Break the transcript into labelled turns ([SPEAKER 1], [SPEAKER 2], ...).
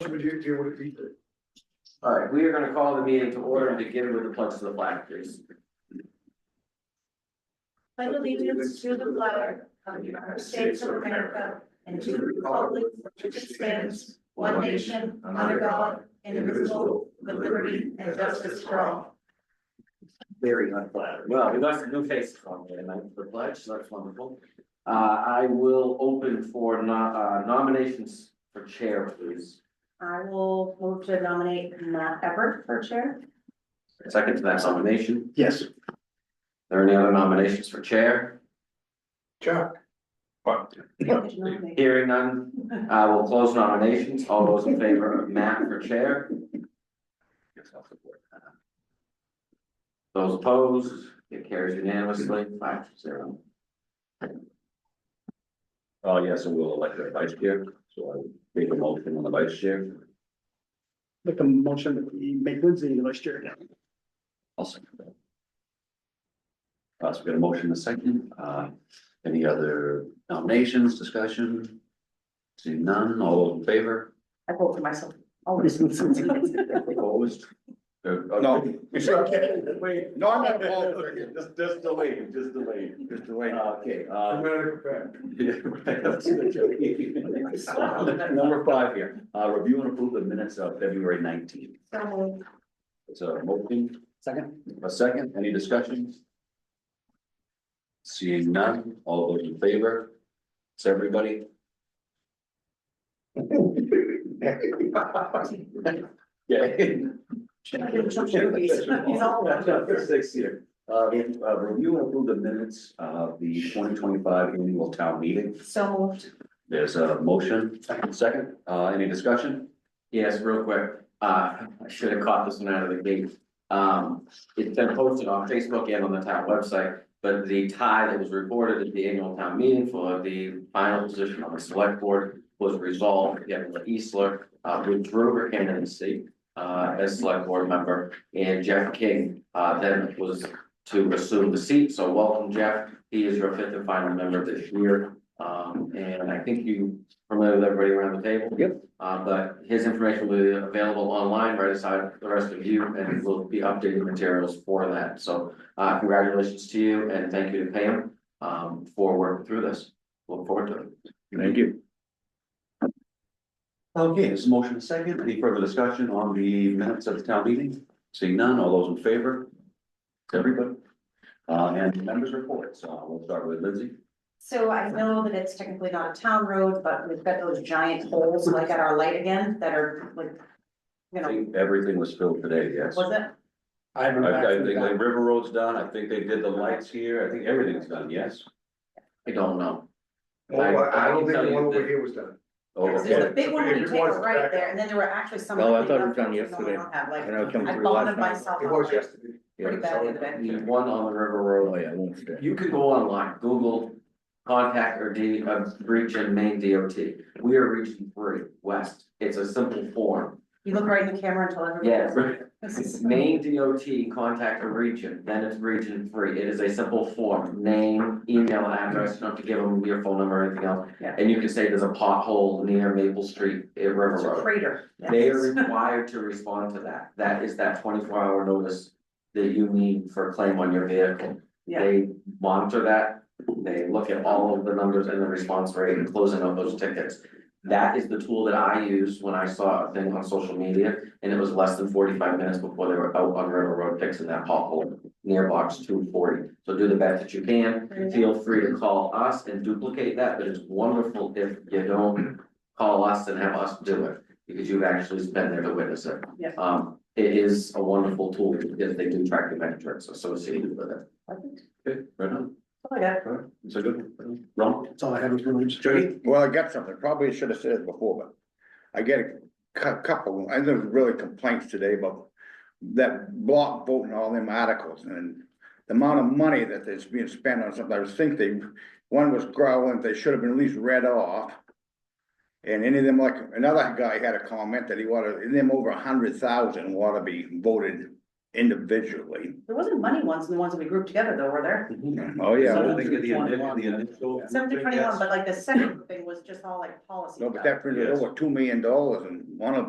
[SPEAKER 1] would you do with it?
[SPEAKER 2] Alright, we are gonna call the meeting to order and begin with the pledge of the flag, please.
[SPEAKER 3] Pledge allegiance to the flag of the United States of America and to the republic which stands one nation under God, indivisible, with liberty and justice for all.
[SPEAKER 2] Very unflattering. Well, we got some new faces on there tonight for the pledge, so that's wonderful. Uh, I will open for no- uh, nominations for chair, please.
[SPEAKER 3] I will move to nominate Matt Everett for chair.
[SPEAKER 2] Second to that nomination,
[SPEAKER 1] Yes.
[SPEAKER 2] are there any other nominations for chair?
[SPEAKER 1] Chuck?
[SPEAKER 3] Did you nominate?
[SPEAKER 2] Hearing none, I will close nominations, all those in favor of Matt for chair? Those opposed, it carries unanimously, five to zero.
[SPEAKER 4] Oh, yes, and we'll elect a vice chair, so I make a motion on the vice chair.
[SPEAKER 1] Make a motion that we make Lindsay the vice chair.
[SPEAKER 4] I'll second that. Uh, so we got a motion, a second, uh, any other nominations, discussion? Seeing none, all those in favor?
[SPEAKER 3] I vote for myself, always.
[SPEAKER 4] Opposed? Uh,
[SPEAKER 5] No.
[SPEAKER 1] Wait.
[SPEAKER 5] No, I'm not voting. Just, just delay, just delay.
[SPEAKER 4] Just the way. Okay, uh,
[SPEAKER 1] I'll
[SPEAKER 4] yeah, right, that's a joke. Number five here, uh, review and approve the minutes of February nineteenth.
[SPEAKER 3] So moved.
[SPEAKER 4] It's a motion. Second. A second, any discussion? Seeing none, all those in favor? It's everybody. Yeah.
[SPEAKER 3] He's all over.
[SPEAKER 4] Six here. Uh, in, uh, review and approve the minutes of the twenty twenty-five annual town meeting.
[SPEAKER 3] So moved.
[SPEAKER 4] There's a motion, second, uh, any discussion?
[SPEAKER 2] Yes, real quick, uh, I should have caught this one out of the gate. Um, it's been posted on Facebook and on the town website, but the tie that was reported at the annual town meeting for the final position on the select board was resolved, Kevin Eastler, uh, withdrew her candidacy, uh, as select board member, and Jeff King, uh, then was to assume the seat, so welcome, Jeff. He is your fifth and final member this year, um, and I think you familiar with everybody around the table? Yep. Uh, but his information will be available online right aside the rest of you and we will be updating materials for that. So uh, congratulations to you and thank you to Pam um, for working through this. Look forward to it.
[SPEAKER 4] Thank you. Okay, this is motion second, any further discussion on the minutes of the town meeting? Seeing none, all those in favor? To everybody. Uh, and members reports, uh, we'll start with Lindsay.
[SPEAKER 3] So I know that it's technically not a town road, but we've got those giant holes like at our light again that are like, you
[SPEAKER 4] I
[SPEAKER 3] know,
[SPEAKER 4] think everything was filled today, yes.
[SPEAKER 3] was it?
[SPEAKER 1] I haven't.
[SPEAKER 4] I, I think like River Road's done, I think they did the lights here, I think everything's done, yes.
[SPEAKER 2] I don't know.
[SPEAKER 1] I don't think the one over here was done.
[SPEAKER 4] Oh,
[SPEAKER 3] Because There's
[SPEAKER 4] okay.
[SPEAKER 3] a big one when you
[SPEAKER 1] If it
[SPEAKER 3] take a
[SPEAKER 1] was,
[SPEAKER 3] right
[SPEAKER 1] back
[SPEAKER 3] there, and then there were actually some.
[SPEAKER 5] No, I
[SPEAKER 3] really
[SPEAKER 5] thought it
[SPEAKER 3] rough
[SPEAKER 5] was done
[SPEAKER 3] ones that
[SPEAKER 5] yesterday.
[SPEAKER 3] don't have,
[SPEAKER 5] I
[SPEAKER 3] like,
[SPEAKER 5] know it comes
[SPEAKER 3] I
[SPEAKER 5] through last
[SPEAKER 3] bonded
[SPEAKER 5] night.
[SPEAKER 3] myself.
[SPEAKER 1] It
[SPEAKER 3] on
[SPEAKER 1] was
[SPEAKER 3] that
[SPEAKER 1] yesterday.
[SPEAKER 3] Pretty bad the other day.
[SPEAKER 2] The one on the River Road,
[SPEAKER 5] yeah, I won't stay.
[SPEAKER 2] you could go online, Google contact or D, uh, reach in Maine DOT. We are reaching three west. It's a simple form.
[SPEAKER 3] You look right in the camera until
[SPEAKER 2] Yeah,
[SPEAKER 3] everybody.
[SPEAKER 2] right. It's Maine DOT contact a region, then it's region three, it is a simple form, name, email address, not to give them your phone number or anything else.
[SPEAKER 3] Yeah.
[SPEAKER 2] And you can say there's a pothole near Maple Street, at River
[SPEAKER 3] It's a
[SPEAKER 2] Road,
[SPEAKER 3] crater. yeah.
[SPEAKER 2] they are required to respond to that, that is that twenty-four hour notice. That you need for a claim on your vehicle,
[SPEAKER 3] Yeah,
[SPEAKER 2] they monitor that, they look at all of the numbers and the response rate and closing out those tickets. That is the tool that I used when I saw a thing on social media, and it was less than forty-five minutes before they were out on River Road fixing that pothole near box two forty. So do the best that you can, feel free to call us and duplicate that, but it's wonderful if you don't call us and have us do it, because you've actually been there to witness it.
[SPEAKER 3] Yeah.
[SPEAKER 2] Um, it is a wonderful tool, because they do track the metrics associated with it.
[SPEAKER 4] Okay, right on,
[SPEAKER 3] Oh, yeah.
[SPEAKER 4] right, it's a good, one. Ron,
[SPEAKER 1] That's all I had was Lindsay.
[SPEAKER 4] Jody?
[SPEAKER 5] Well, I got something, probably should have said it before, but I get a cou- couple, and there's really complaints today about that block vote and all them articles and the amount of money that is being spent on something, I was thinking, one was growling, they should have been at least read off. And any of them, like, another guy had a comment that he wanted, and them over a hundred thousand want to be voted individually.
[SPEAKER 3] there wasn't money ones, and the ones that we grouped together though, were there?
[SPEAKER 5] Oh, yeah.
[SPEAKER 4] I think the initial, the initial.
[SPEAKER 3] Seven to twenty-one, but like the second thing was just all like policy.
[SPEAKER 5] No, but
[SPEAKER 3] stuff.
[SPEAKER 5] that printed
[SPEAKER 4] Yes.
[SPEAKER 5] over two million dollars and one of